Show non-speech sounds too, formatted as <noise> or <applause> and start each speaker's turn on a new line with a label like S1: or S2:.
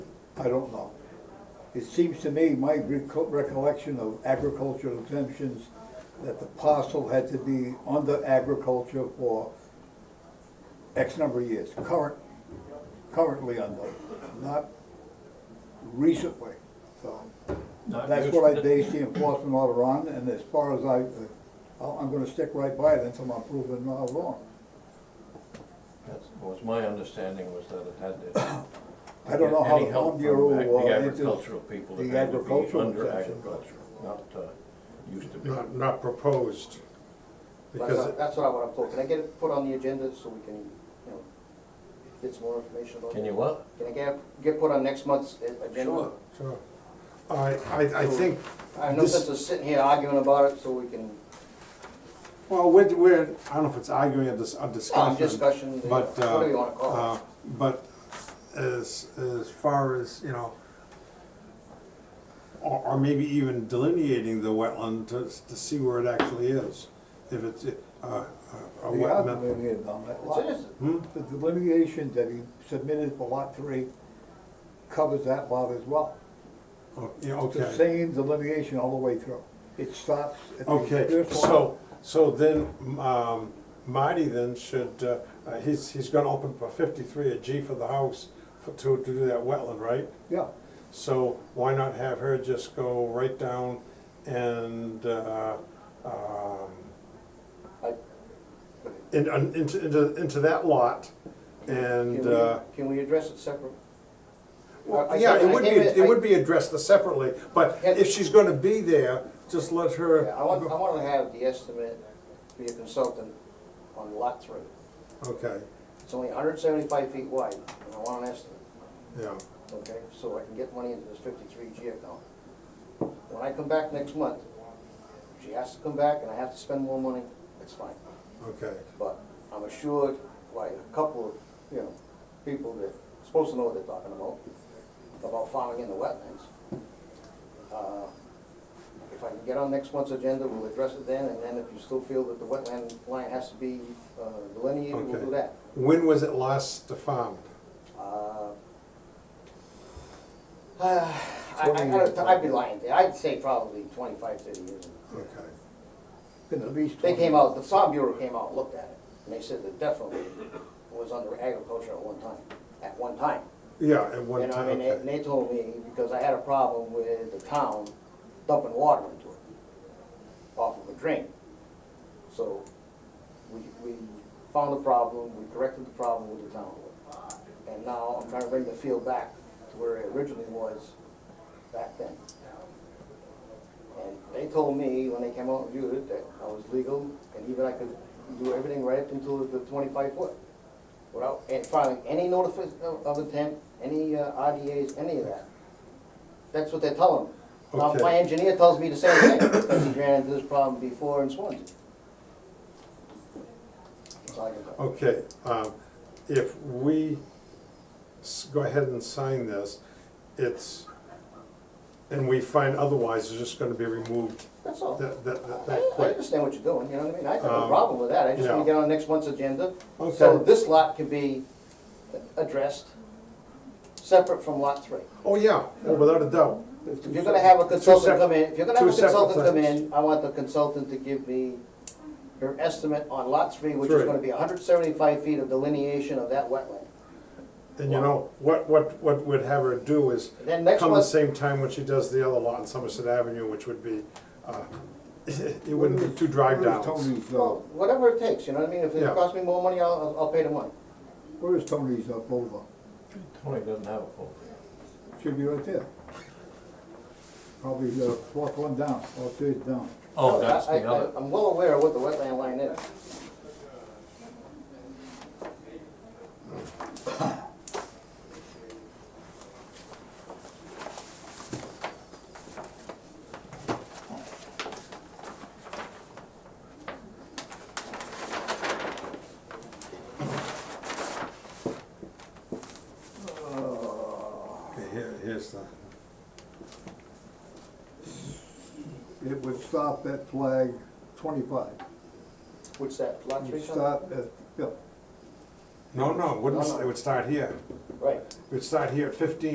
S1: I don't know. It seems to me, my reco- recollection of agricultural exemptions, that the parcel had to be under agriculture for X number of years, current, currently under, not recently, so.
S2: Not
S1: That's what I
S2: recent.
S1: based the enforcement order on, and as far as I, I'll- I'm gonna stick right by it until I'm proven not wrong.
S2: That's, was my understanding was that it had to.
S1: I don't know how
S2: Any
S1: the
S2: help
S1: Home
S2: from
S1: Bureau,
S2: ag-
S1: uh,
S2: The
S1: enters-
S2: agricultural people,
S1: the
S2: it had to be
S1: agricultural
S2: under
S1: exemption.
S2: agriculture, not, uh, used to be.
S3: not, not proposed.
S4: That's
S3: Because,
S4: what, that's what I want to pull, can I get it put on the agenda so we can, you know, get some more information about it?
S2: Can you what?
S4: Can I get, get put on next month's uh, agenda?
S2: Sure.
S3: so, I, I, I think
S4: I have no sense
S3: this,
S4: of sitting here arguing about it, so we can,
S3: well, we're, we're, I don't know if it's arguing or dis- or discussion.
S4: Oh, discussion, yeah,
S3: but, uh,
S4: whatever you wanna call it.
S3: uh, But as, as far as, you know, or, or maybe even delineating the wetland to, to see where it actually is. If it's, uh, a
S1: They are
S3: wetland,
S1: delineated on that
S4: so
S1: lot.
S4: just,
S1: The delineation that he submitted for lot three covers that lot as well.
S3: oh, yeah,
S1: It's the
S3: okay.
S1: same delineation all the way through. It starts at the
S3: Okay,
S1: first lot.
S3: so, so then, um, Marty then should, uh, uh, he's, he's gonna open for fifty-three a G for the house for, to, to do that wetland, right?
S1: Yeah,
S3: So why not have her just go right down and, uh, um,
S4: I,
S3: in, un- into, into, into that lot
S4: can
S3: and, uh,
S4: we, can we address it separate? I- I
S3: well, yeah,
S4: gave
S3: it would be,
S4: I gave
S3: it
S4: I-
S3: would be addressed separately, but
S4: Yeah.
S3: if she's gonna be there, just let her.
S4: Yeah, I want, I want to have the estimate for your consultant on lot three.
S3: Okay,
S4: It's only hundred and seventy-five feet wide, and I want an estimate.
S3: yeah,
S4: okay, so I can get money into this fifty-three G account. When I come back next month, if she has to come back and I have to spend more money, it's fine.
S3: okay,
S4: But I'm assured by a couple of, you know, people that are supposed to know what they're talking about, about farming in the wetlands. Uh, If I can get on next month's agenda, we'll address it then, and then if you still feel that the wetland line has to be uh, delineated, we'll do
S3: okay.
S4: that.
S3: When was it last found?
S4: Uh, <sighs> I, I gotta, I'd be lying, there. I'd say probably 25, 30 years.
S3: Okay,
S1: been at least
S4: They
S1: 20.
S4: came out, the Farm Bureau came out, and looked at it, and they said that definitely it was under agriculture at one time, at one time.
S3: yeah, at one
S4: You know, I
S3: time,
S4: mean, they- and
S3: okay,
S4: they told me, because I had a problem with the town dumping water into it off of a drain. So we, we found the problem, we corrected the problem with the town. And now I'm trying to bring the field back to where it originally was back then. And they told me, when they came out and viewed it, that I was legal, and even I could do everything right up until the twenty-five foot. Without, and filing any notice of of intent, any uh, RDAs, any of that. That's what they're telling me. Now,
S3: Okay.
S4: my engineer tells me the same thing, because he ran into this problem before in Swansea. That's all I can tell.
S3: okay, um, if we s- go ahead and sign this, it's, and we find otherwise, it's just gonna be removed
S4: That's all.
S3: that, that, that-
S4: I,
S3: that
S4: I
S3: quick.
S4: understand what you're doing, you know what I mean? I have no
S3: Um,
S4: problem with that, I just wanna
S3: yeah. Oh,
S4: get on next month's agenda. So
S3: Okay.
S4: this lot can be addressed separate from lot three.
S3: Oh, yeah, oh, without a doubt,
S4: If you're gonna have a consultant
S3: sep-
S4: come in, if you're gonna have a
S3: two separate
S4: consultant come
S3: things.
S4: in, I want the consultant to give me her estimate on lot three, which is
S3: Three.
S4: gonna be hundred seventy-five feet of delineation of that wetland.
S3: and you know, what, what, what we'd have her do is
S4: Then next
S3: come the
S4: month-
S3: same time when she does the other lot on Somerset Avenue, which would be, uh, <laughs> it wouldn't be two drive
S1: Where is
S3: downs.
S1: Tony's, uh,
S4: Well, whatever it takes, you know what I mean? If it
S3: Yeah.
S4: costs me more money, I'll, I'll- I'll pay the money.
S1: where is Tony's uh, folder?
S2: Tony doesn't have a phone.
S1: Should be right there. Probably the fourth one down, or third down.
S2: Oh, that's
S4: I-
S2: the
S4: I-
S2: other,
S4: I'm well aware of what the wetland line is.
S1: Uh,
S3: Okay, here, here's the,
S1: It would stop at flag twenty-five.
S4: What's that, lot
S1: It
S4: three
S1: would
S4: something?
S1: stop at, yeah.
S3: no, no, it wouldn't,
S4: No, no.
S3: it would start here,
S4: Right.
S3: it would start here at fifteen